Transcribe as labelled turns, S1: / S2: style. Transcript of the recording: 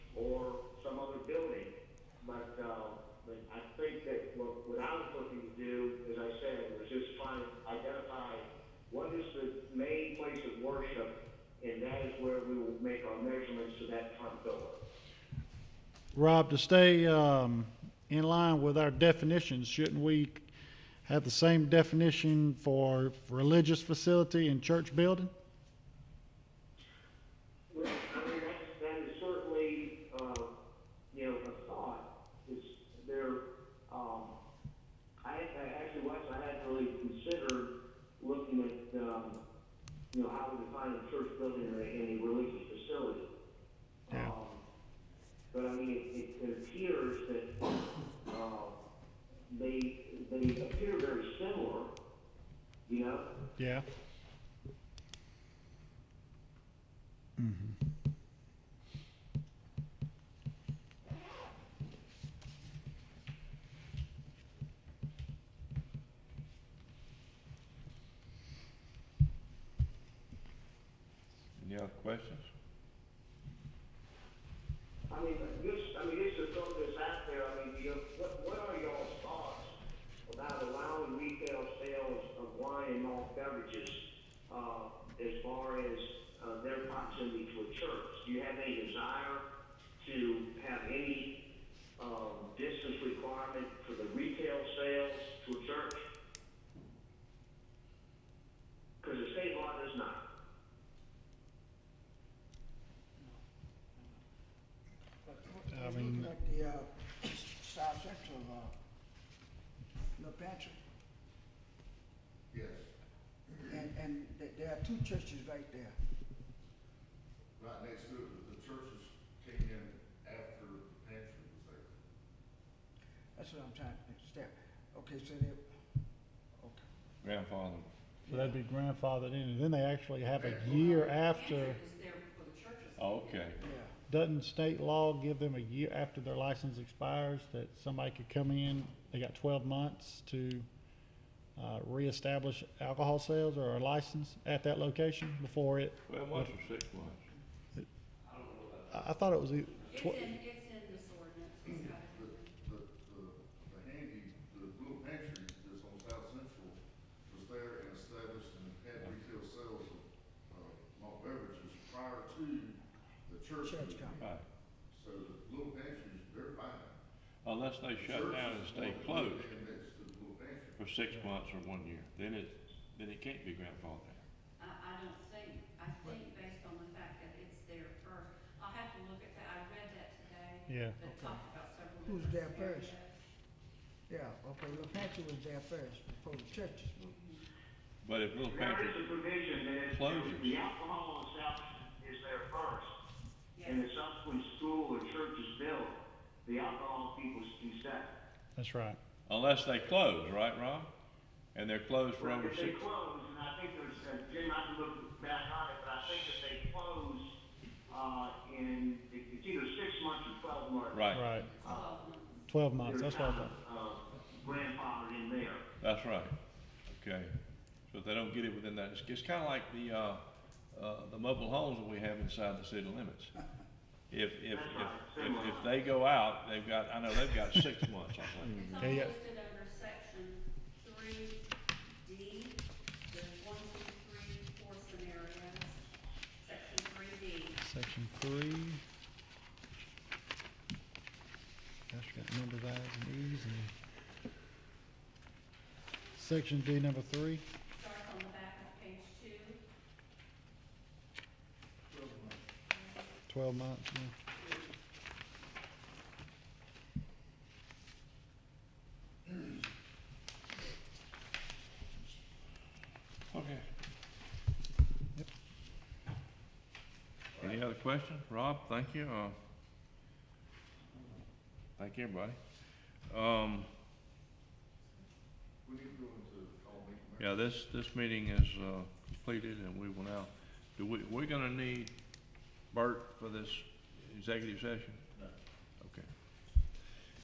S1: But I think that what, what I was looking to do, as I said, was just find, identify what is the main place of worship, and that is where we will make our measurements to that front door.
S2: Rob, to stay um, in line with our definitions, shouldn't we have the same definition for religious facility and church building?
S1: Well, I mean, that's, that is certainly, uh, you know, a thought, is there, um, I, I actually, Wes, I hadn't really considered looking at, um, you know, how we define a church building or any religious facility.
S2: Yeah.
S1: Um, But I mean, it, it appears that, uh, they, they appear very similar, you know?
S2: Yeah.
S3: Any other questions?
S1: I mean, this, I mean, this is throw this out there, I mean, you know, what, what are y'all's thoughts about allowing retail sales of wine and malt beverages, uh, as far as, uh, their proximity to a church? Do you have any desire to have any, um, distance requirement for the retail sales to a church? Cause the state law does not.
S2: I mean-
S4: Like the, uh, south central, uh, La Pantry.
S5: Yes,
S4: And, and th- there are two churches right there.
S5: right next to it, the churches came in after the pantry was there.
S4: That's what I'm trying to understand. Okay, so they, okay.
S3: Grandfather,
S2: So that'd be grandfathered in, and then they actually have a year after.
S6: Is there for the churches?
S3: oh, okay.
S4: Yeah.
S2: Doesn't state law give them a year after their license expires that somebody could come in, they got twelve months to uh, reestablish alcohol sales or a license at that location before it?
S3: Twelve months or six months?
S2: I, I thought it was e-
S6: It's
S2: tw-
S6: in, it's in this ordinance, it's got it
S5: The,
S6: in there.
S5: the, the, the handy, the little pantry that's on South Central was there and established and had retail sales of, uh, malt beverages prior to the church.
S4: Church
S5: moving.
S4: coming.
S3: Right.
S5: So the little pantries, they're fine.
S3: Unless they shut down and stay
S5: Churches want to live
S3: closed
S5: in Next to the little pantry.
S3: for six months or one year, then it, then it can't be grandfathered.
S6: I, I don't think, I think based on the fact that it's there first, I'll have to look at that, I read that today.
S2: Yeah.
S6: But
S4: Okay.
S6: talked about several.
S4: Who's
S6: different
S4: there first?
S6: areas.
S4: Yeah, okay, La Pantry was there first before the churches moved.
S3: But if Little
S1: There
S3: Pantry,
S1: is a provision that if
S3: Closures.
S1: the alcohol establishment is there first, and the subsequent school or church is built, the alcohol people can set.
S2: that's right.
S3: unless they close, right, Rob? And they're closed for over
S1: If they
S3: six,
S1: close, and I think there's, uh, Jim, I can look back on it, but I think if they close, uh, in, it's either six months or twelve months.
S3: right,
S2: Right,
S6: Twelve
S3: Hmm.
S6: months.
S2: twelve months, that's what I
S1: there's
S2: thought.
S1: kind of, Uh, grandfathered in there.
S3: that's right, okay. So if they don't get it within that, it's, it's kinda like the, uh, uh, the mobile homes that we have inside the city limits. If, if, if,
S1: That's right,
S3: if,
S1: similar.
S3: if they go out, they've got, I know they've got six months, I think.
S6: It's all
S2: Yeah, yeah.
S6: listed under section three D, there's one, two, three, four scenarios, section three D.
S2: Section three. Gosh, we got numbers, I's and E's and. Section D number three,
S6: Starts on the back of page two,
S2: twelve months, yeah.
S3: Okay. Any other question? Rob, thank you. Uh, Thank you, everybody. Um,
S5: We need to go into call meeting. now.
S3: yeah, this, this meeting is, uh, completed and we will now, do we, we're gonna need Bert for this executive session?